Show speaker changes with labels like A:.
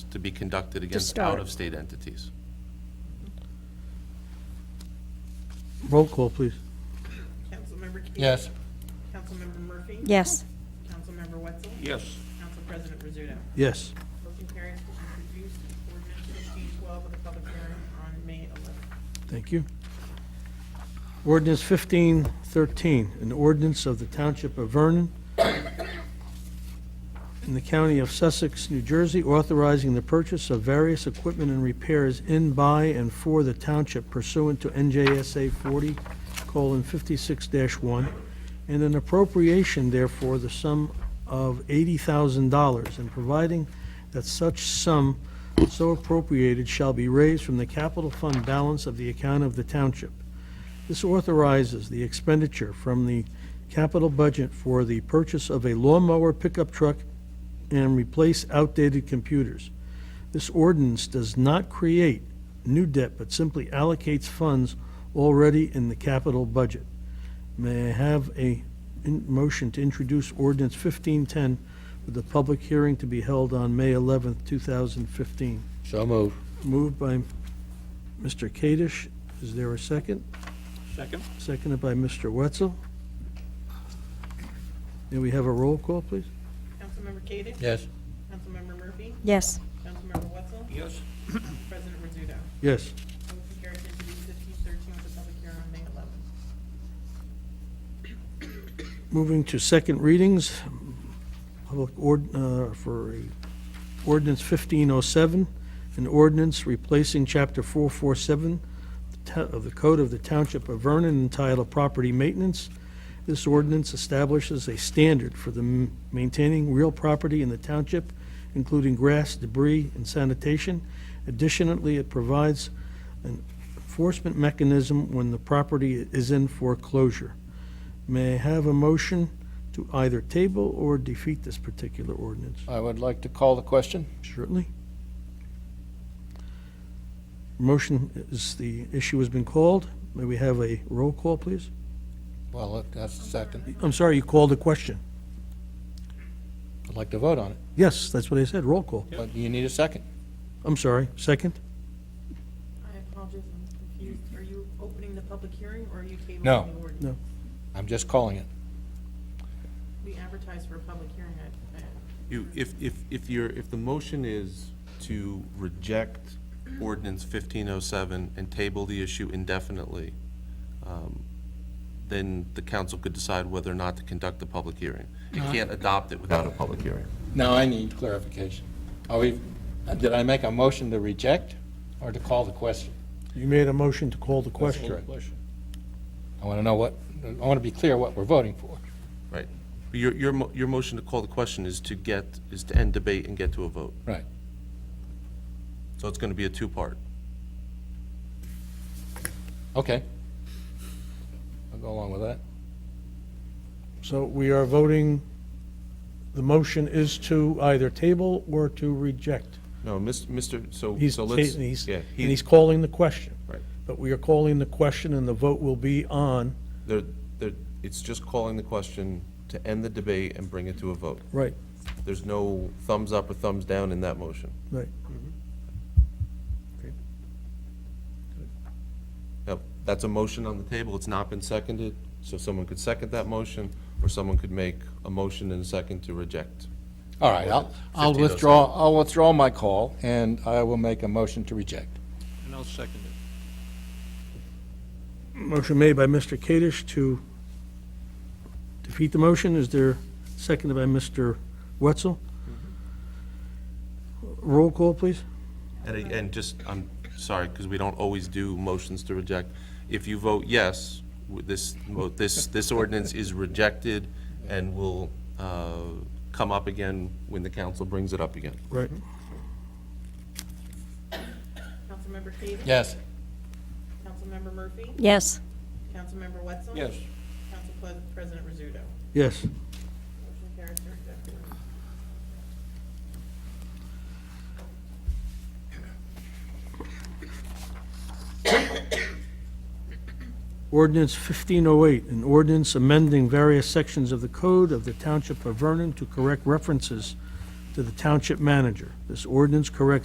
A: to be conducted against
B: start.
A: out-of-state entities.
C: Roll call, please.
D: Councilmember Key?
E: Yes.
D: Councilmember Murphy?
B: Yes.
D: Councilmember Wetzel?
F: yes,
D: Council President Rizzuto?
C: Yes.
D: Motion carries to introduce ordinance fifteen twelve with a public hearing on May eleventh.
C: Thank you. Ordinance 1513, an ordinance of the Township of Vernon in the County of Sussex, New Jersey, authorizing the purchase of various equipment and repairs in, by, and for the township pursuant to NJSA 40:56-1, and an appropriation therefore the sum of $80,000, and providing that such sum so appropriated shall be raised from the capital fund balance of the account of the township. This authorizes the expenditure from the capital budget for the purchase of a lawnmower pickup truck and replace outdated computers. This ordinance does not create new debt, but simply allocates funds already in the capital budget. May I have a in- motion to introduce ordinance 1510 with a public hearing to be held on May 11th, 2015?
E: So move.
C: Moved by Mr. Kadesh. Is there a second?
F: second,
C: Seconded by Mr. Wetzel. May we have a roll call, please?
D: Councilmember Key?
E: Yes.
D: Councilmember Murphy?
B: Yes.
D: Councilmember Wetzel?
F: yes,
D: Council President Rizzuto?
C: Yes.
D: Motion carries to introduce fifteen thirteen with a public hearing on May eleventh.
C: Moving to second readings, public ord, uh, for a ordinance 1507, an ordinance replacing Chapter 447 ta- of the Code of the Township of Vernon entitled Property Maintenance. This ordinance establishes a standard for the m- maintaining real property in the township, including grass, debris, and sanitation. Additionally, it provides an enforcement mechanism when the property is in foreclosure. May I have a motion to either table or defeat this particular ordinance?
E: I would like to call the question.
C: Certainly. Motion is, the issue has been called. May we have a roll call, please?
E: Well, look, that's the second.
C: I'm sorry, you called a question.
E: I'd like to vote on it,
C: Yes, that's what I said, roll call.
E: but you need a second.
C: I'm sorry, second?
D: I apologize, I'm confused. Are you opening the public hearing or are you tabling
E: No.
D: the ordinance?
C: No.
E: I'm just calling it.
D: We advertised for a public hearing. I- I-
A: You, if, if, if you're, if the motion is to reject ordinance fifteen oh seven and table the issue indefinitely, um, then the council could decide whether or not to conduct the public hearing. You can't adopt it without a public hearing.
E: Now I need clarification. Are we, did I make a motion to reject or to call the question?
C: You made a motion to call the
E: Call the question. I want to know what, I want to be clear what we're voting for.
A: Right. Your, your, mo- your motion to call the question is to get, is to end debate and get to a vote.
E: Right.
A: So it's gonna be a two-part.
E: Okay. I'll go along with that.
C: So we are voting, the motion is to either table or to reject.
A: No, Mis- Mr., so,
C: He's,
A: so
C: ta-
A: let's.
C: and he's,
A: yeah,
C: and
A: he-
C: he's calling the question.
A: Right.
C: But we are calling the question and the vote will be on,
A: They're, they're, it's just calling the question to end the debate and bring it to a vote.
C: right,
A: There's no thumbs up or thumbs down in that motion.
C: right. Mm-hmm.
A: Yep, that's a motion on the table, it's not been seconded, so someone could second that motion, or someone could make a motion and a second to reject.
E: All right, I'll, I'll
A: 1507.
E: withdraw, I'll withdraw my call and I will make a motion to reject.
F: and I'll second it,
C: Motion made by Mr. Kadesh to defeat the motion. Is there, seconded by Mr. Wetzel? Roll call, please.
A: And, I- and just, I'm sorry, because we don't always do motions to reject. If you vote yes, w- this, mo- this, this ordinance is rejected and will, uh, come up again when the council brings it up again.
C: Right.
D: Councilmember Key?
E: Yes.
D: Councilmember Murphy?
B: Yes.
D: Councilmember Wetzel?
F: yes.
D: Council Pres- President Rizzuto?
C: Yes.
D: Motion carries to reject the ordinance.
C: Ordinance 1508, an ordinance amending various sections of the code of the Township of Vernon to correct references to the township manager. This ordinance corrects